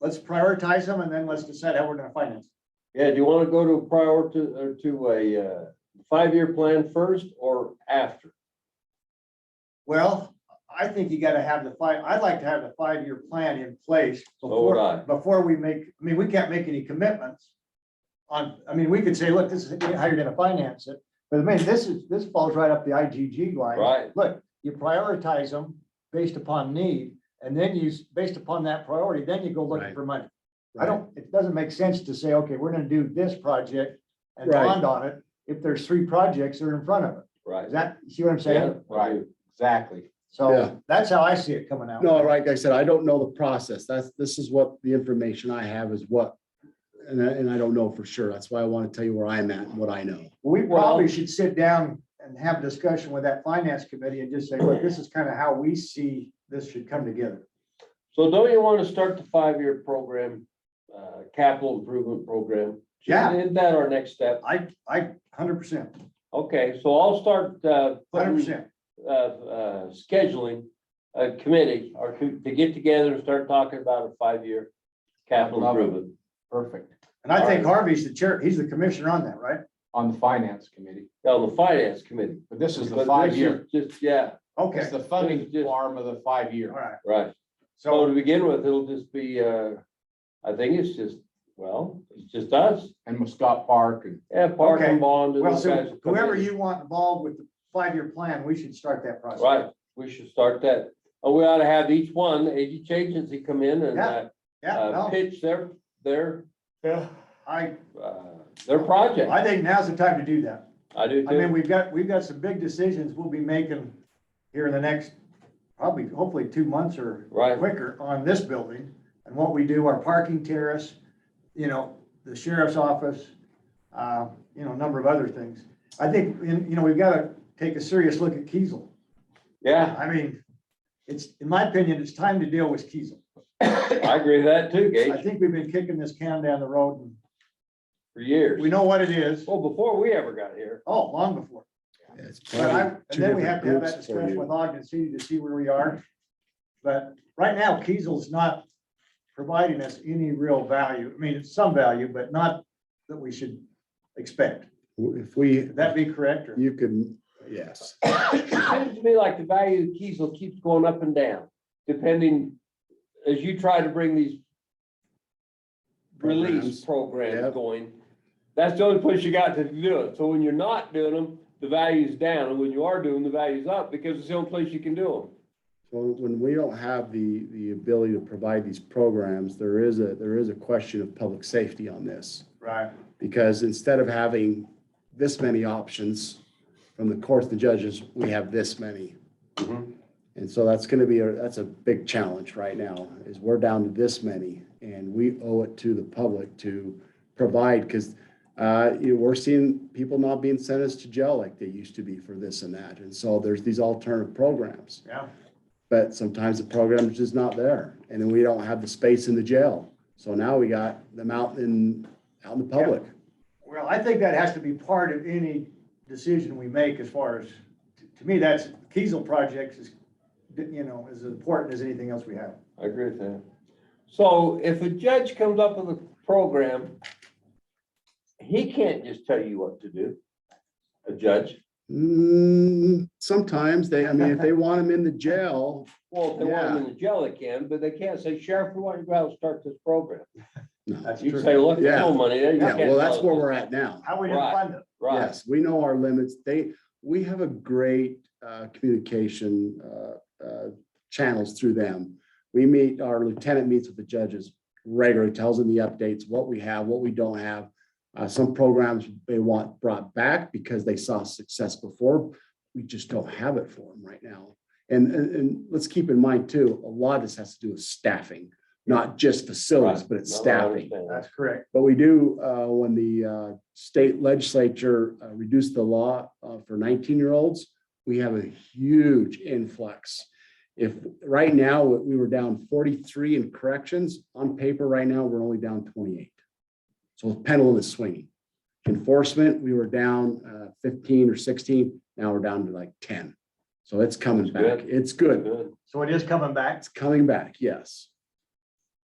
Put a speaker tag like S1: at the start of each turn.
S1: let's prioritize them and then let's decide how we're gonna finance.
S2: Yeah, do you want to go to a prior to, or to a uh, five-year plan first or after?
S1: Well, I think you gotta have the five, I'd like to have the five-year plan in place
S2: So would
S1: before,
S2: I.
S1: before we make, I mean, we can't make any commitments. On, I mean, we could say, look, this is how you're gonna finance it, but I mean, this is, this falls right up the IGG line.
S2: Right.
S1: Look, you prioritize them based upon need, and then you, s- based upon that priority, then you go looking
S3: Right.
S1: for money. I don't, it doesn't make sense to say, okay, we're gonna do this project and
S3: Right.
S1: bond on it, if there's three projects that are in front of it.
S2: Right.
S1: Is that, see what I'm
S2: Yeah,
S1: saying?
S2: I do.
S4: Exactly.
S3: Yeah.
S1: So that's how I see it coming out.
S3: No, like I said, I don't know the process. That's, this is what the information I have is what. And I, and I don't know for sure. That's why I want to tell you where I'm at and what I know.
S1: We probably should sit down and have a discussion with that finance committee and just say, look, this is kind of how we see this should come together.
S2: So don't you want to start the five-year program, uh, capital improvement program?
S1: Yeah.
S2: Isn't that our next step?
S1: I, I, hundred percent,
S2: Okay, so I'll start uh,
S1: hundred
S2: putting
S1: percent.
S2: uh, uh, scheduling a committee or to to get together and start talking about a five-year capital
S4: Love it.
S2: improvement.
S4: Perfect.
S1: And I think Harvey's the chair, he's the commissioner on that, right?
S4: On the finance committee,
S2: On the finance committee.
S4: but this is
S2: But
S4: the
S2: this
S4: five year,
S2: is Just, yeah,
S4: it's
S1: Okay,
S4: the
S2: This
S4: funding
S2: is just-
S4: arm of the five
S1: all
S4: year.
S1: right.
S2: right. So
S1: So,
S2: to begin with, it'll just be, uh, I think it's just, well, it's just us,
S4: And Muscat Park and
S2: yeah, park
S1: Okay.
S2: and bond. and
S1: well,
S2: those guys
S1: so
S2: will come
S1: whoever
S2: in.
S1: you want involved with the five-year plan, we should start that process.
S2: Right, we should start that. And we ought to have each one, each agency come in and uh, uh,
S1: Yeah,
S2: pitch their, their,
S1: no, I,
S2: uh, their project.
S1: I think now's the time to do that.
S2: I do
S1: I
S2: too.
S1: mean, we've got, we've got some big decisions we'll be making here in the next, probably, hopefully, two months or
S2: Right,
S1: quicker on this building and what we do, our parking terrace, you know, the sheriff's office, uh, you know, a number of other things. I think, and, you know, we've got to take a serious look at Kiesel.
S2: yeah,
S1: I mean, it's, in my opinion, it's time to deal with Kiesel.
S2: I agree with that too,
S1: I
S2: Gage,
S1: think we've been kicking this can down the road
S2: for
S1: and we
S2: years.
S1: know what it is.
S2: Well, before we ever got here.
S1: Oh, long before.
S3: It's
S1: But I,
S3: probably
S1: and
S3: two
S1: then we have
S3: different
S1: to have
S3: groups
S1: that
S3: for
S1: discussion
S3: you.
S1: with Ogden City to see where we are. But right now, Kiesel's not providing us any real value. I mean, it's some value, but not that we should expect.
S3: If we,
S1: Would that be correct? or-
S3: you can, yes,
S2: Seems to me like the value of Kiesel keeps going up and down, depending, as you try to bring these release
S3: Programs.
S2: programs
S3: Yep.
S2: going. That's the only place you got to do it. So when you're not doing them, the value's down, and when you are doing, the value's up, because it's the only place you can do
S3: Well, when we don't have the, the ability to provide these programs, there is a, there is a question of public safety on this.
S1: Right.
S3: Because instead of having this many options from the courts, the judges, we have this many.
S2: them.
S3: And so that's gonna be, a that's a big challenge right now, is we're down to this many, and we owe it to the public to provide, because uh, you know, we're seeing people not being sentenced to jail like they used to be for this and that, and so there's these alternative programs.
S1: Yeah.
S3: But sometimes the program is just not there, and then we don't have the space in the jail, so now we got them out in, out in the public.
S1: Well, I think that has to be part of any decision we make as far as, to me, that's, Kiesel projects is, you know, as important as anything else we have.
S2: I agree with that. So if a judge comes up with a program, he can't just tell you what to do, a judge.
S3: Mm, sometimes they, I mean, if they want them in the jail,
S2: Well, if they want them in the jail, they can, but they can't say, Sheriff, we want you to go out and start this program.
S1: That's
S2: You
S1: true.
S2: say, look, there's
S3: Yeah.
S2: no money there. you
S3: yeah,
S2: can't
S3: well, that's
S2: tell
S3: where
S2: us."
S3: we're at now.
S1: How we gonna
S2: Right.
S1: fund it?
S2: Right,
S3: Yes, we know our limits. They, we have a great uh, communication uh, uh, channels through them. We meet, our lieutenant meets with the judges regularly, tells them the updates, what we have, what we don't have. Uh, Some programs they want brought back because they saw success before. We just don't have it for them right now. And, and, and let's keep in mind too, a lot of this has to do with staffing, not just facilities,
S2: Right.
S3: but it's
S2: No, I
S3: staffing.
S2: understand that.
S1: That's correct.
S3: But we do, uh, when the uh, state legislature uh, reduced the law uh, for 19-year-olds, we have a huge influx. If, right now, we were down 43 in corrections, on paper right now, we're only down 28. So the pendulum is swinging. Enforcement, we were down uh, 15 or 16, now we're down to like 10. So it's coming
S2: That's
S3: back. It's good.
S2: Good.
S1: So it is coming back.
S3: It's coming back, yes.